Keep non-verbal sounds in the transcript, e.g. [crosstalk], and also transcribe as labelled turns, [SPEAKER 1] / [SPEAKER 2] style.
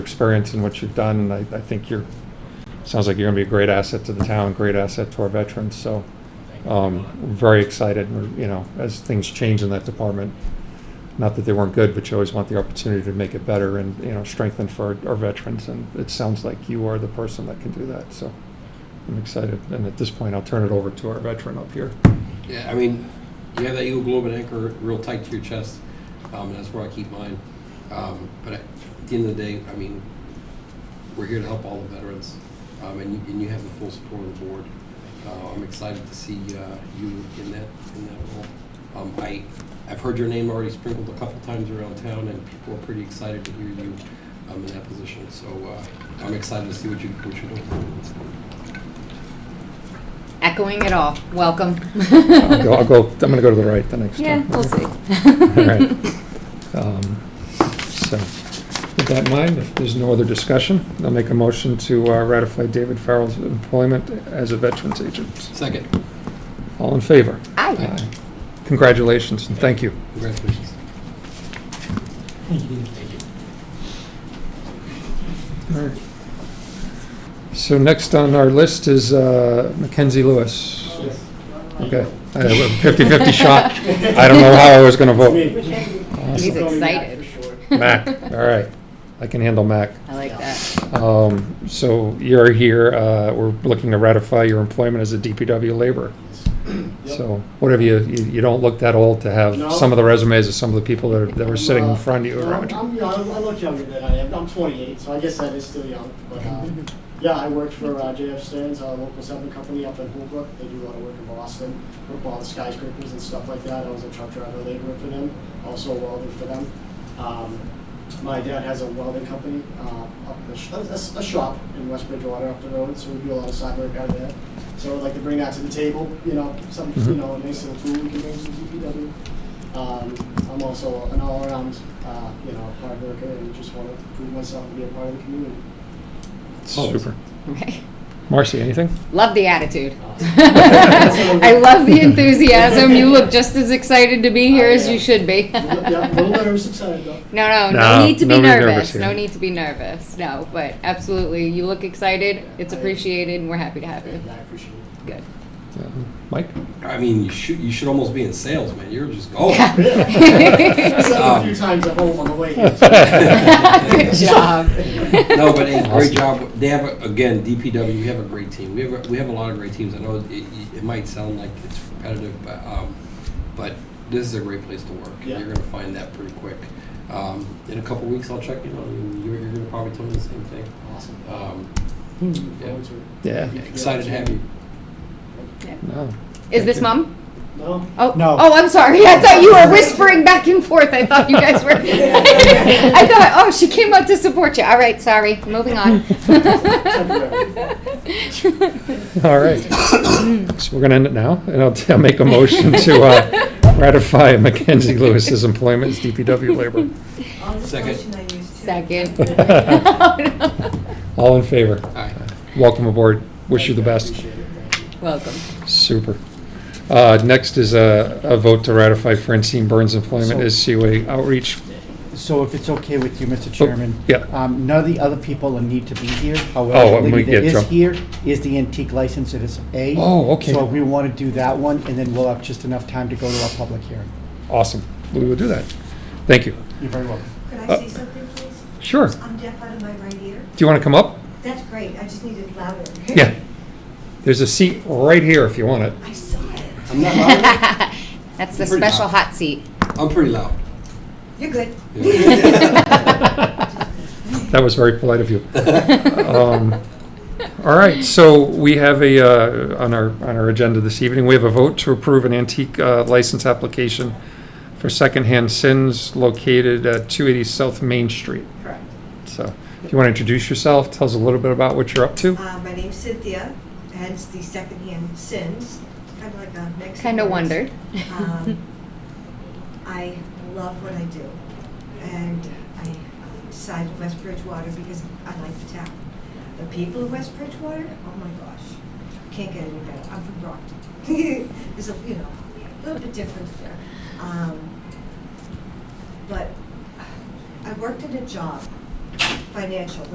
[SPEAKER 1] experience and what you've done, and I, I think you're, sounds like you're gonna be a great asset to the town, great asset to our veterans, so, um, very excited, We're, you know, as things change in that department. Not that they weren't good, but you always want the opportunity to make it better and, you know, strengthen for our, our veterans, and it sounds like you are the person that can do that, so. I'm excited, and at this point, I'll turn it over to our veteran up
[SPEAKER 2] [laughs]
[SPEAKER 1] here.
[SPEAKER 3] Yeah, I mean, you have that Eagle Globe and anchor real tight to your chest, um, and that's where I keep mine. Um, but at the end of the day, I mean, we're here to help all the veterans, um, and, you, and you have the full support of the board. Uh, I'm excited to see uh, you in that in that role. Um, I I've heard your name already sprinkled a couple times around town, and people are pretty excited to hear you um, in that position. So uh, I'm excited to see what you what you're doing.
[SPEAKER 2] Echoing it all. Welcome.
[SPEAKER 1] I'll go, I'll go, I'm gonna go to the right the next
[SPEAKER 2] Yeah,
[SPEAKER 1] time. [laughs]
[SPEAKER 2] we'll see.
[SPEAKER 1] All right.
[SPEAKER 2] [laughs]
[SPEAKER 1] Um, So, with that in mind, if there's no other discussion, I'll make a motion to uh, ratify David Farrell's employment as a veterans agent.
[SPEAKER 3] Second,
[SPEAKER 1] All in favor?
[SPEAKER 2] Aye.
[SPEAKER 1] Congratulations, and thank you.
[SPEAKER 3] congratulations. Thank you.
[SPEAKER 1] All right. So next on our list is uh, Mackenzie Lewis. Okay, I have a 50/50 shot. I don't know how I was gonna vote.
[SPEAKER 2] He's
[SPEAKER 1] Awesome.
[SPEAKER 2] excited.
[SPEAKER 1] Mac, [laughs] all right, I can handle Mac.
[SPEAKER 2] I like that.
[SPEAKER 1] Um, so you're here, uh, we're looking to ratify your employment as a DPW laborer. So whatever you, you, you don't look that old to
[SPEAKER 4] No.
[SPEAKER 1] have some of the resumes of some of the people that, are- that were sitting in front of you Oh,
[SPEAKER 4] Uh,
[SPEAKER 1] around you.
[SPEAKER 4] I'm, you know, I'm- I look younger than I am. I'm 28, so I guess that is still young. But uh, yeah, I worked for uh, JF Stearns, a local settlement company up in Holbrook. They do a lot of work in Boston, work with all the skyscrapers and stuff like that. I was a truck driver laborer for them, also a welder for them. Um, my dad has a welding company uh, up the sh- a, a- a shop in West Bridgewater up the road, so we do a lot of side work out of there. So I'd like to bring that to the table, you know, some
[SPEAKER 1] Mhm.
[SPEAKER 4] you know, a nice little tool we can bring to DPW. Um, I'm also an all-around, uh, you know, hard worker and just want to prove myself and be a part of the community. Oh.
[SPEAKER 1] Super.
[SPEAKER 2] Okay.
[SPEAKER 1] Marcy, anything?
[SPEAKER 2] Love the
[SPEAKER 4] [laughs]
[SPEAKER 2] attitude. [laughs]
[SPEAKER 4] Awesome.
[SPEAKER 2] I love the enthusiasm. You look just as excited to be here
[SPEAKER 4] I
[SPEAKER 2] as
[SPEAKER 4] am.
[SPEAKER 2] you should be.
[SPEAKER 4] [laughs] yeah, a little nervous, excited though.
[SPEAKER 2] [laughs] No, no, no,
[SPEAKER 1] No,
[SPEAKER 2] need to
[SPEAKER 1] no
[SPEAKER 2] be
[SPEAKER 1] need nervous
[SPEAKER 2] nervous.
[SPEAKER 1] here.
[SPEAKER 2] No need to be nervous. No, but absolutely, you look excited. It's
[SPEAKER 4] I-
[SPEAKER 2] appreciated, and we're happy to have you.
[SPEAKER 4] And I appreciate
[SPEAKER 2] [laughs]
[SPEAKER 4] it.
[SPEAKER 2] Good.
[SPEAKER 1] Yeah. Uh, Mike?
[SPEAKER 3] I mean, you should you should almost be in sales, man. You're just going.
[SPEAKER 4] I said it a few
[SPEAKER 3] Um,
[SPEAKER 4] times at home on the way here.
[SPEAKER 2] [laughs] Good job.
[SPEAKER 3] [laughs] No, but hey, great
[SPEAKER 1] Awesome.
[SPEAKER 3] job. They have a- again DPW. We have a great team. We have a, we have a lot of great teams. I know it, it, it might sound like it's repetitive, but um, but this is a great place to work.
[SPEAKER 4] Yeah.
[SPEAKER 3] You're going to find that pretty quick. Um, in a couple weeks, I'll check in on you. and You're, you're going to probably tell me the same thing.
[SPEAKER 4] Awesome.
[SPEAKER 3] Um,
[SPEAKER 4] Looking forward to it.
[SPEAKER 1] Yeah.
[SPEAKER 3] yeah, excited to have you.
[SPEAKER 1] No. [laughs]
[SPEAKER 2] Is this mom?
[SPEAKER 4] No?
[SPEAKER 2] Oh,
[SPEAKER 5] No.
[SPEAKER 2] oh, I'm sorry. I thought you were whispering back and forth. I thought you guys were. [laughs] I thought, oh, she came out to support you. All right, sorry. Moving on.
[SPEAKER 1] All
[SPEAKER 4] [coughs]
[SPEAKER 1] right. So we're gonna end it now, and I'll, I'll make a [laughs] motion to, uh, ratify [laughs] Mackenzie Lewis's employment as DPW laborer.
[SPEAKER 6] All the
[SPEAKER 3] Second.
[SPEAKER 6] motion I used to-
[SPEAKER 1] [laughs]
[SPEAKER 2] Second.
[SPEAKER 1] All in favor?
[SPEAKER 3] All right.
[SPEAKER 1] Welcome aboard. Wish you the best.
[SPEAKER 4] Appreciate it, thank you.
[SPEAKER 2] Welcome.
[SPEAKER 1] [laughs] Super. Uh, Next is a a vote to ratify Francine Burns' employment as COA outreach.
[SPEAKER 5] So if it's okay with you,
[SPEAKER 1] Oh.
[SPEAKER 5] Mr. Chairman?
[SPEAKER 1] yeah.
[SPEAKER 5] um, None of the other people will need to be here.
[SPEAKER 1] Oh,
[SPEAKER 5] However,
[SPEAKER 1] and
[SPEAKER 5] the
[SPEAKER 1] we
[SPEAKER 5] lady that
[SPEAKER 1] get
[SPEAKER 5] is
[SPEAKER 1] Joe.
[SPEAKER 5] here is the antique license, it is A.
[SPEAKER 1] Oh, okay.
[SPEAKER 5] So we want to do that one, and then we'll have just enough time to go to our public hearing.
[SPEAKER 1] Awesome. We will do that. Thank you.
[SPEAKER 5] You're very welcome.
[SPEAKER 6] Could
[SPEAKER 1] Uh,
[SPEAKER 6] I say something, please?
[SPEAKER 1] Sure. Do
[SPEAKER 6] I'm deaf out of my right ear.
[SPEAKER 1] you want to come up?
[SPEAKER 6] That's great, I just need it louder.
[SPEAKER 1] Yeah. There's a seat right here if you want it.
[SPEAKER 6] I saw it.
[SPEAKER 3] I'm not. Loud.
[SPEAKER 2] That's the
[SPEAKER 3] Pretty
[SPEAKER 2] special
[SPEAKER 3] loud.
[SPEAKER 2] hot seat.
[SPEAKER 3] I'm pretty loud.
[SPEAKER 6] You're good. [laughs]
[SPEAKER 1] That was very polite of you. [laughs] [laughs] Um, All right, so we have a, uh, on our, on our agenda this evening, we have a vote to approve an antique uh, license application for secondhand sins located at 280 South Main Street.
[SPEAKER 6] Correct.
[SPEAKER 1] So if you want to introduce yourself, tell us a little bit about what you're up to.
[SPEAKER 6] Uh, my name's Cynthia, hence the secondhand sins, kind of like a Mexican.
[SPEAKER 2] Kind of wondered.
[SPEAKER 6] Um, I love what I do, and I uh, decided West Bridgewater because I like the town. The people of West Bridgewater, oh my gosh, can't get any better. I'm from Brockton. [laughs] It's a, you know, a little bit different there. Um, But I worked at a job financial